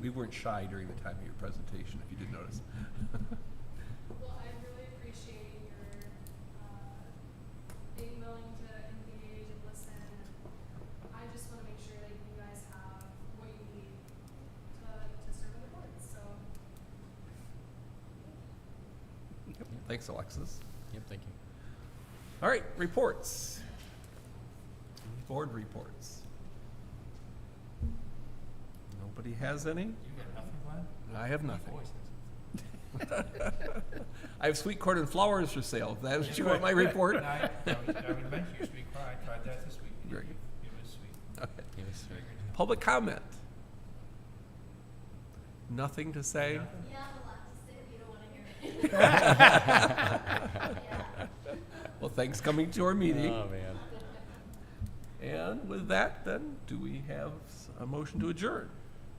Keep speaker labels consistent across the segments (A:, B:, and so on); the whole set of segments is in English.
A: we weren't shy during the time of your presentation, if you did notice.
B: Well, I really appreciate your uh, being willing to engage and listen. I just want to make sure that you guys have what you need to, to serve on the board. So,
A: Thanks, Alexis.
C: Yep, thank you.
A: All right, reports. Board reports. Nobody has any?
D: You got nothing, Glenn?
A: I have nothing.
D: Voices.
A: I have sweet corn and flowers for sale. If That is, you want my report?
D: No, I, I was- I was meant you speak, well, I tried that this week.
A: Very
D: It
A: good.
D: was sweet.
A: Okay.
C: It was
D: Very good.
A: Public comment? Nothing to say?
D: Nothing?
E: You have a lot to say, but you don't want to hear it.
A: Well, thanks coming to our meeting.
C: Oh, man.
A: And with that, then, do we have s- a motion to adjourn?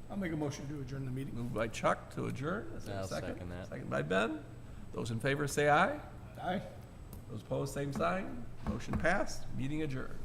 F: I'll make a motion to adjourn the meeting.
A: Moved by Chuck to adjourn. Is there a
C: I'll
A: second?
C: second that.
A: Second by Ben. Those in favor say aye.
F: Aye.
A: Those opposed, same sign. Motion passed. Meeting adjourned.